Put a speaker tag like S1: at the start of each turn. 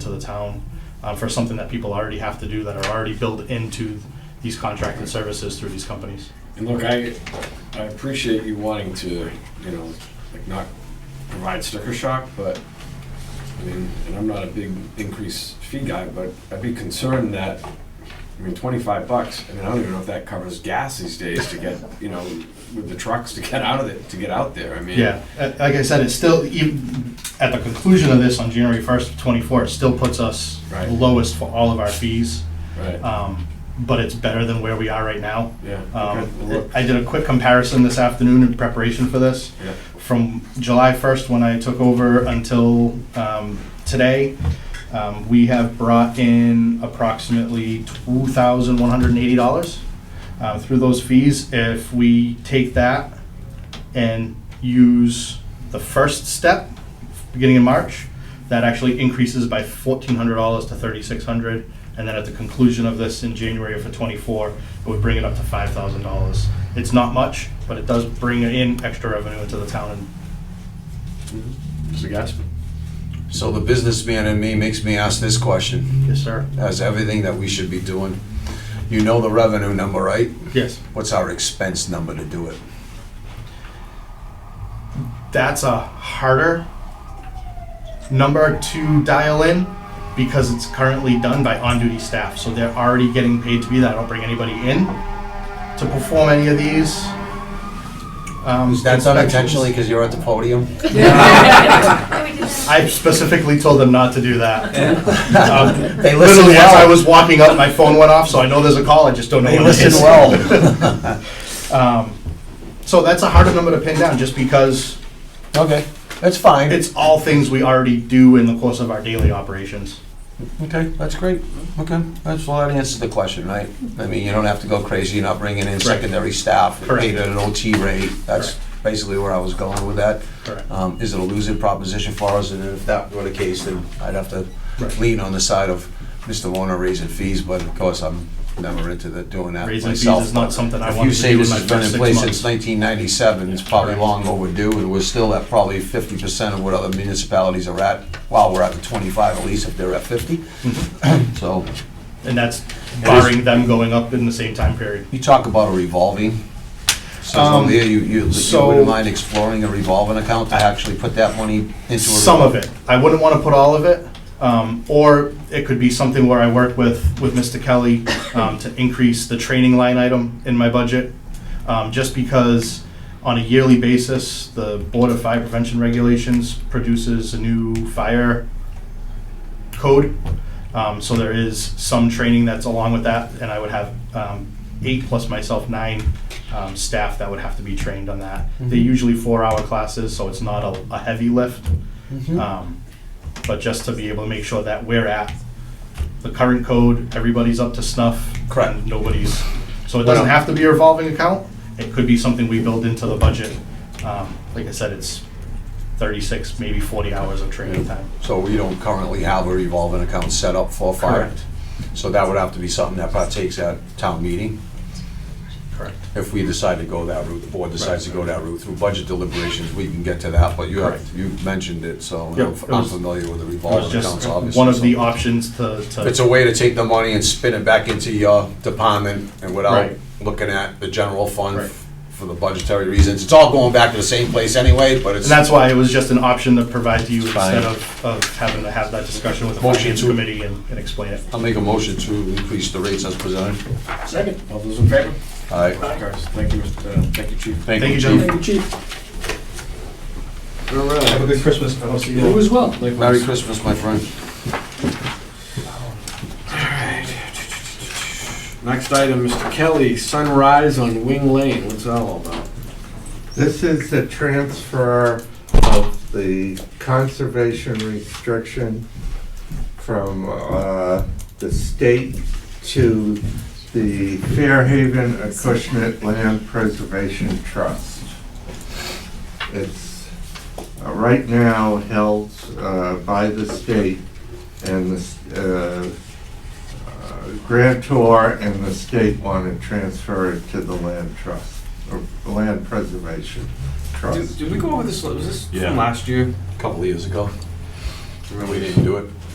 S1: to the town uh, for something that people already have to do that are already built into these contracted services through these companies.
S2: And look, I, I appreciate you wanting to, you know, like not provide sticker shock, but, I mean, and I'm not a big increase fee guy, but I'd be concerned that, I mean, twenty-five bucks, I mean, I don't even know if that covers gas these days to get, you know, with the trucks to get out of it, to get out there, I mean.
S1: Yeah, uh, like I said, it's still, even at the conclusion of this on January 1st, 24, it still puts us
S2: Right.
S1: lowest for all of our fees,
S2: Right,
S1: um, but it's better than where we are right now.
S2: yeah. okay, well,
S1: Um,
S2: look,
S1: I did a quick comparison this afternoon in preparation for this.
S2: Yeah,
S1: From July 1st, when I took over, until um, today, um, we have brought in approximately $2,180 uh, through those fees. If we take that and use the first step, beginning in March, that actually increases by fourteen hundred dollars to thirty-six hundred, and then at the conclusion of this in January for twenty-four, it would bring it up to five thousand dollars. It's not much, but it does bring in extra revenue into the town, and
S2: Mr. Gaspar.
S3: So the businessman in me makes me ask this question,
S1: yes, sir.
S3: as everything that we should be doing. You know the revenue number, right?
S1: Yes,
S3: What's our expense number to do it?
S1: that's a harder number to dial in because it's currently done by on-duty staff, so they're already getting paid to be that. I don't bring anybody in to perform any of these. um,
S3: Is that
S1: inspections.
S3: done intentionally because you're at the podium?
S1: I specifically told them not to do that. Um,
S3: They listen
S1: literally, as I
S3: well.
S1: was walking up, my phone went off, so I know there's a call. I just don't know.
S3: They
S1: what it
S3: listen
S1: is.
S3: well.
S1: Um, so that's a harder number to pin down, just because
S3: Okay, that's fine.
S1: it's all things we already do in the course of our daily operations.
S3: Okay, that's great. Okay, that's, well, that answers the question, right? I mean, you don't have to go crazy, you're not bringing in secondary staff, you're paid at an OT rate. That's basically where I was going with that.
S1: Correct.
S3: Um, Is it a losing proposition for us? And if that were the case, then I'd have to
S1: Right.
S3: lean on the side of Mr. Warner raising fees, but of course, I'm never into the- doing that
S1: Raising fees
S3: myself.
S1: is not something I
S3: If you
S1: wanted to
S3: say
S1: do in
S3: this
S1: my
S3: has been in
S1: first
S3: place
S1: six
S3: since
S1: months.
S3: 1997, it's probably long overdue, and we're still at probably 50% of what other municipalities are at. While we're at the 25, at least if they're at 50.
S1: Mm-hmm.
S3: So
S1: And that's barring them going up in the same time period.
S3: you talk about a revolving.
S1: Um,
S3: So there, you, you you
S1: so-
S3: wouldn't mind exploring a revolving account to actually put that money into a.
S1: Some of it. I wouldn't want to put all of it. Um, or it could be something where I work with, with Mr. Kelly um, to increase the training line item in my budget. Um, just because on a yearly basis, the Board of Fire Prevention Regulations produces a new fire code. Um, so there is some training that's along with that, and I would have um, eight plus myself, nine um, staff that would have to be trained on that. They're usually four hour classes, so it's not a, a heavy lift. Um, but just to be able to make sure that we're at the current code, everybody's up to snuff.
S3: Correct.
S1: and Nobody's, so it doesn't have to be a revolving account. It could be something we build into the budget. Um, like I said, it's 36, maybe 40 hours of training time.
S3: So we don't currently have a revolving account set up for fire.
S1: Correct.
S3: So that would have to be something that partakes at town meeting,
S1: Correct.
S3: if we decide to go that route, the board decides to go that route. Through budget deliberations, we can get to that, but you have,
S1: Correct.
S3: you mentioned it, so
S1: Yeah,
S3: I'm
S1: it
S3: I'm
S1: was-
S3: familiar with the
S1: It was
S3: revolving accounts,
S1: just
S3: obviously.
S1: one of the
S3: so-
S1: options to,
S3: If It's
S1: to,
S3: a way to take the money and spin it back into your department and without
S1: Right.
S3: looking at the general fund
S1: Right.
S3: for the budgetary reasons. It's all going back to the same place anyway, but it's.
S1: and that's why it was just an option to provide to you
S3: Fine.
S1: instead of, of having to have that discussion with the
S3: Motion
S1: finance
S3: to-
S1: committee and, and explain it.
S3: I'll make a motion to increase the rates as presented.
S2: Second. All those in favor?
S3: All right.
S2: Guys, Thank you, Mr. uh, thank you, Chief.
S1: Thank you,
S3: Chief.
S1: gentlemen.
S2: Chief. All right.
S4: Have a good Christmas, and I'll see you.
S2: You as well.
S3: Merry Christmas, my friend.
S2: Next item, Mr. Kelly, Sunrise on Wing Lane, what's that all about?
S4: This is the transfer of the conservation restriction from uh, the state to the Fairhaven Acushnet Land Preservation Trust. It's uh, right now held uh, by the state and the uh, uh, grantor and the state want to transfer it to the land trust, or land preservation trust.
S2: Did we go over this, was this
S3: Yeah.
S2: from last year?
S3: A Couple of years ago. Remember, we didn't do it.